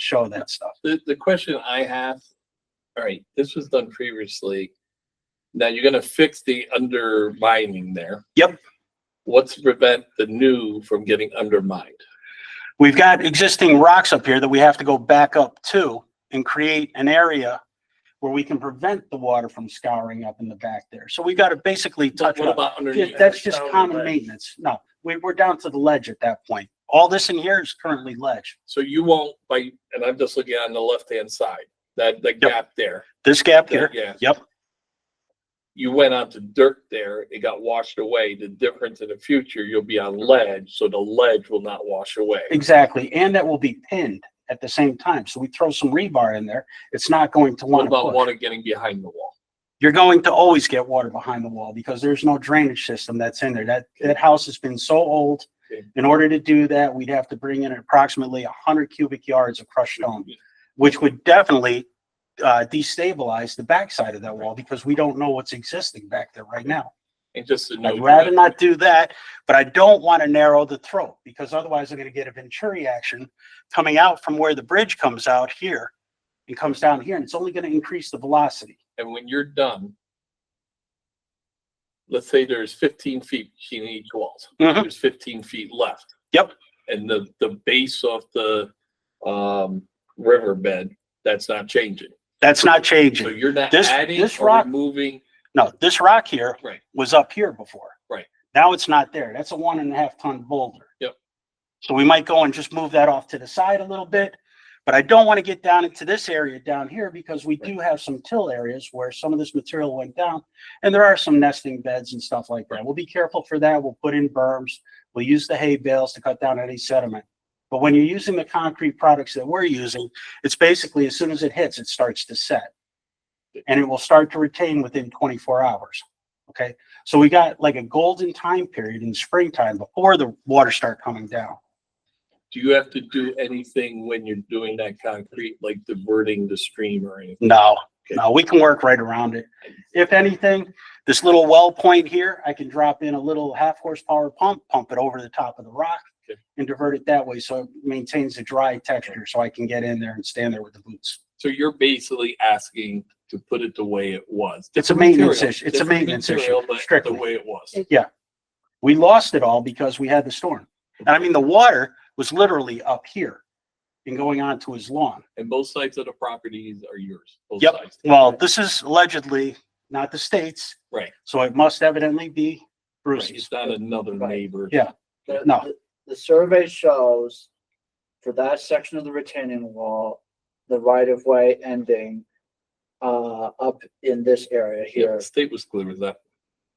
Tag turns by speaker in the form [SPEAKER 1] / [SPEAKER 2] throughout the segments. [SPEAKER 1] show that stuff.
[SPEAKER 2] The, the question I have, all right, this was done previously. Now you're gonna fix the undermining there.
[SPEAKER 1] Yep.
[SPEAKER 2] What's to prevent the new from getting undermined?
[SPEAKER 1] We've got existing rocks up here that we have to go back up to and create an area where we can prevent the water from scouring up in the back there. So we got to basically touch
[SPEAKER 2] What
[SPEAKER 1] up.
[SPEAKER 2] about underneath?
[SPEAKER 1] Yeah, That's just common maintenance. No, we, we're down to the ledge at that point. All this in here is currently ledge.
[SPEAKER 2] So you won't, by, and I'm just looking on the left-hand side, that, the gap there,
[SPEAKER 1] This gap
[SPEAKER 2] that
[SPEAKER 1] here,
[SPEAKER 2] gap.
[SPEAKER 1] yep,
[SPEAKER 2] You went onto dirt there, it got washed away. The difference in the future, you'll be on ledge, so the ledge will not wash away.
[SPEAKER 1] exactly. And that will be pinned at the same time. So we throw some rebar in there. It's not going to
[SPEAKER 2] What
[SPEAKER 1] want to
[SPEAKER 2] about
[SPEAKER 1] push.
[SPEAKER 2] water getting behind the wall?
[SPEAKER 1] You're going to always get water behind the wall because there's no drainage system that's in there. That, that house has been so old.
[SPEAKER 2] Okay.
[SPEAKER 1] In order to do that, we'd have to bring in approximately hundred cubic yards of crushed stone. which would definitely uh, destabilize the backside of that wall because we don't know what's existing back there right now.
[SPEAKER 2] And just to know.
[SPEAKER 1] I'd rather not do that, but I don't want to narrow the throat because otherwise I'm going to get a venturi action coming out from where the bridge comes out here and comes down here, and it's only going to increase the velocity.
[SPEAKER 2] And when you're done, let's say there's fifteen feet between each walls.
[SPEAKER 1] Mhm.
[SPEAKER 2] There's fifteen feet left.
[SPEAKER 1] Yep.
[SPEAKER 2] And the, the base of the, um, riverbed, that's not changing.
[SPEAKER 1] That's not
[SPEAKER 2] So
[SPEAKER 1] changing.
[SPEAKER 2] you're not
[SPEAKER 1] This-
[SPEAKER 2] adding
[SPEAKER 1] this
[SPEAKER 2] or
[SPEAKER 1] rock-
[SPEAKER 2] removing,
[SPEAKER 1] No, this rock here
[SPEAKER 2] right?
[SPEAKER 1] was up here before.
[SPEAKER 2] Right.
[SPEAKER 1] Now it's not there. That's a one and a half ton boulder.
[SPEAKER 2] Yep.
[SPEAKER 1] So we might go and just move that off to the side a little bit, but I don't want to get down into this area down here because we do have some till areas where some of this material went down. And there are some nesting beds and stuff like that. We'll be careful for that. We'll put in berms. We'll use the hay bales to cut down any sediment. But when you're using the concrete products that we're using, it's basically as soon as it hits, it starts to set. And it will start to retain within twenty-four hours. Okay, so we got like a golden time period in springtime before the water start coming down.
[SPEAKER 2] Do you have to do anything when you're doing that concrete, like diverting the stream or anything?
[SPEAKER 1] No, no, we can work right around it. If anything, this little well point here, I can drop in a little half horsepower pump, pump it over the top of the rock
[SPEAKER 2] Okay.
[SPEAKER 1] and divert it that way. So it maintains a dry texture so I can get in there and stand there with the boots.
[SPEAKER 2] So you're basically asking to put it the way it was.
[SPEAKER 1] It's a
[SPEAKER 2] Different
[SPEAKER 1] maintenance
[SPEAKER 2] material,
[SPEAKER 1] issue. It's a
[SPEAKER 2] different
[SPEAKER 1] maintenance
[SPEAKER 2] material,
[SPEAKER 1] issue,
[SPEAKER 2] but
[SPEAKER 1] strictly.
[SPEAKER 2] The way it was.
[SPEAKER 1] We lost it all because we had the storm. And I mean, the water was literally up here and going onto his lawn.
[SPEAKER 2] And both sides of the properties are yours. both
[SPEAKER 1] Yep.
[SPEAKER 2] sides.
[SPEAKER 1] Well, this is allegedly not the state's.
[SPEAKER 2] Right.
[SPEAKER 1] So it must evidently be
[SPEAKER 2] Right,
[SPEAKER 1] Bruce's.
[SPEAKER 2] It's not another
[SPEAKER 3] Right.
[SPEAKER 2] neighbor.
[SPEAKER 1] Yeah.
[SPEAKER 3] The-
[SPEAKER 1] No.
[SPEAKER 3] the- The survey shows for that section of the retaining wall, the right of way ending uh up in this area
[SPEAKER 2] Yeah,
[SPEAKER 3] here.
[SPEAKER 2] the state was clear with that.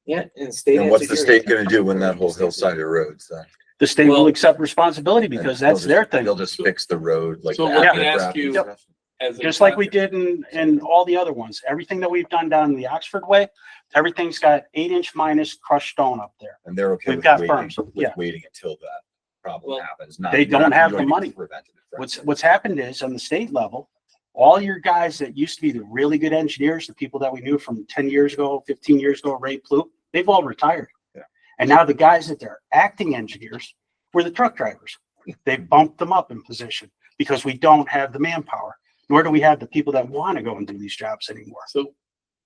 [SPEAKER 4] Yeah, and state.
[SPEAKER 5] And
[SPEAKER 4] has
[SPEAKER 5] what's
[SPEAKER 4] to
[SPEAKER 5] the
[SPEAKER 4] hear
[SPEAKER 5] state
[SPEAKER 4] it.
[SPEAKER 5] gonna do when that whole hillside erodes then?
[SPEAKER 1] The state will
[SPEAKER 2] Well-
[SPEAKER 1] accept responsibility because
[SPEAKER 5] They'll
[SPEAKER 1] that's their
[SPEAKER 5] just- They'll
[SPEAKER 1] thing,
[SPEAKER 5] just fix the road like.
[SPEAKER 2] So
[SPEAKER 5] the
[SPEAKER 2] let
[SPEAKER 5] after
[SPEAKER 2] me ask
[SPEAKER 5] graph.
[SPEAKER 2] you- Yep. As a
[SPEAKER 1] just like we did in, in all the other ones. Everything that we've done down the Oxford Way, everything's got eight inch minus crushed stone up there.
[SPEAKER 5] And they're okay
[SPEAKER 1] We've
[SPEAKER 5] with
[SPEAKER 1] got
[SPEAKER 5] waiting,
[SPEAKER 1] firms, yeah.
[SPEAKER 5] with waiting until that
[SPEAKER 2] Well,
[SPEAKER 5] problem happens. not-
[SPEAKER 1] they
[SPEAKER 5] you're not
[SPEAKER 1] don't have the
[SPEAKER 5] doing
[SPEAKER 1] money.
[SPEAKER 5] preventative, right?
[SPEAKER 1] What's, what's happened is on the state level, all your guys that used to be the really good engineers, the people that we knew from ten years ago, fifteen years ago, Ray Ploop, they've all retired.
[SPEAKER 5] Yeah.
[SPEAKER 1] And now the guys that they're acting engineers were the truck drivers. They bumped them up in position because we don't have the manpower, nor do we have the people that want to go and do these jobs anymore.
[SPEAKER 2] So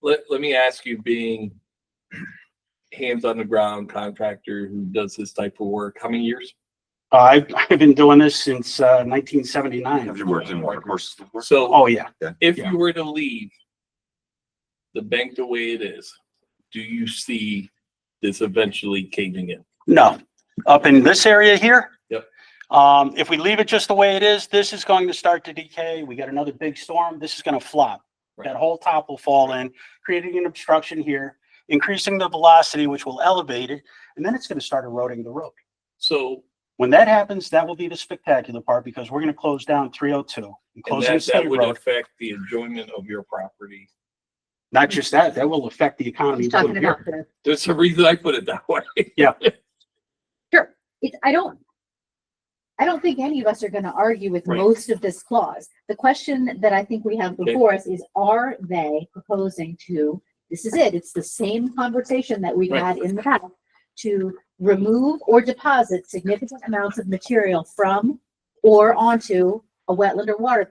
[SPEAKER 2] let, let me ask you, being hands on the ground contractor who does this type of work, how many years?
[SPEAKER 1] Uh, I've, I've been doing this since, uh, nineteen seventy-nine.
[SPEAKER 5] Have you worked in water courses before?
[SPEAKER 2] So
[SPEAKER 1] Oh, yeah.
[SPEAKER 2] if
[SPEAKER 1] yeah.
[SPEAKER 2] you were to leave the bank the way it is, do you see this eventually caving in?
[SPEAKER 1] No, up in this area here.
[SPEAKER 2] Yep.
[SPEAKER 1] Um, if we leave it just the way it is, this is going to start to decay. We got another big storm. This is gonna flop. That
[SPEAKER 2] Right.
[SPEAKER 1] whole top will fall in, creating an obstruction here, increasing the velocity, which will elevate it, and then it's gonna start eroding the road.
[SPEAKER 2] So
[SPEAKER 1] When that happens, that will be the spectacular part because we're gonna close down three oh two and
[SPEAKER 2] and
[SPEAKER 1] closing the
[SPEAKER 2] that, that
[SPEAKER 1] state
[SPEAKER 2] would
[SPEAKER 1] road.
[SPEAKER 2] affect the enjoyment of your property.
[SPEAKER 1] Not just that, that will affect the economy.
[SPEAKER 6] He's talking
[SPEAKER 1] down
[SPEAKER 6] about
[SPEAKER 1] here.
[SPEAKER 6] the-
[SPEAKER 2] There's a reason I put it that way.
[SPEAKER 6] Sure, it's, I don't, I don't think any of us are gonna argue with
[SPEAKER 2] Right.
[SPEAKER 6] most of this clause. The question that I think we have before us is, are they proposing to, this is it, it's the same conversation that we've
[SPEAKER 2] Right.
[SPEAKER 6] had in the past, to remove or deposit significant amounts of material from or onto a wetland or water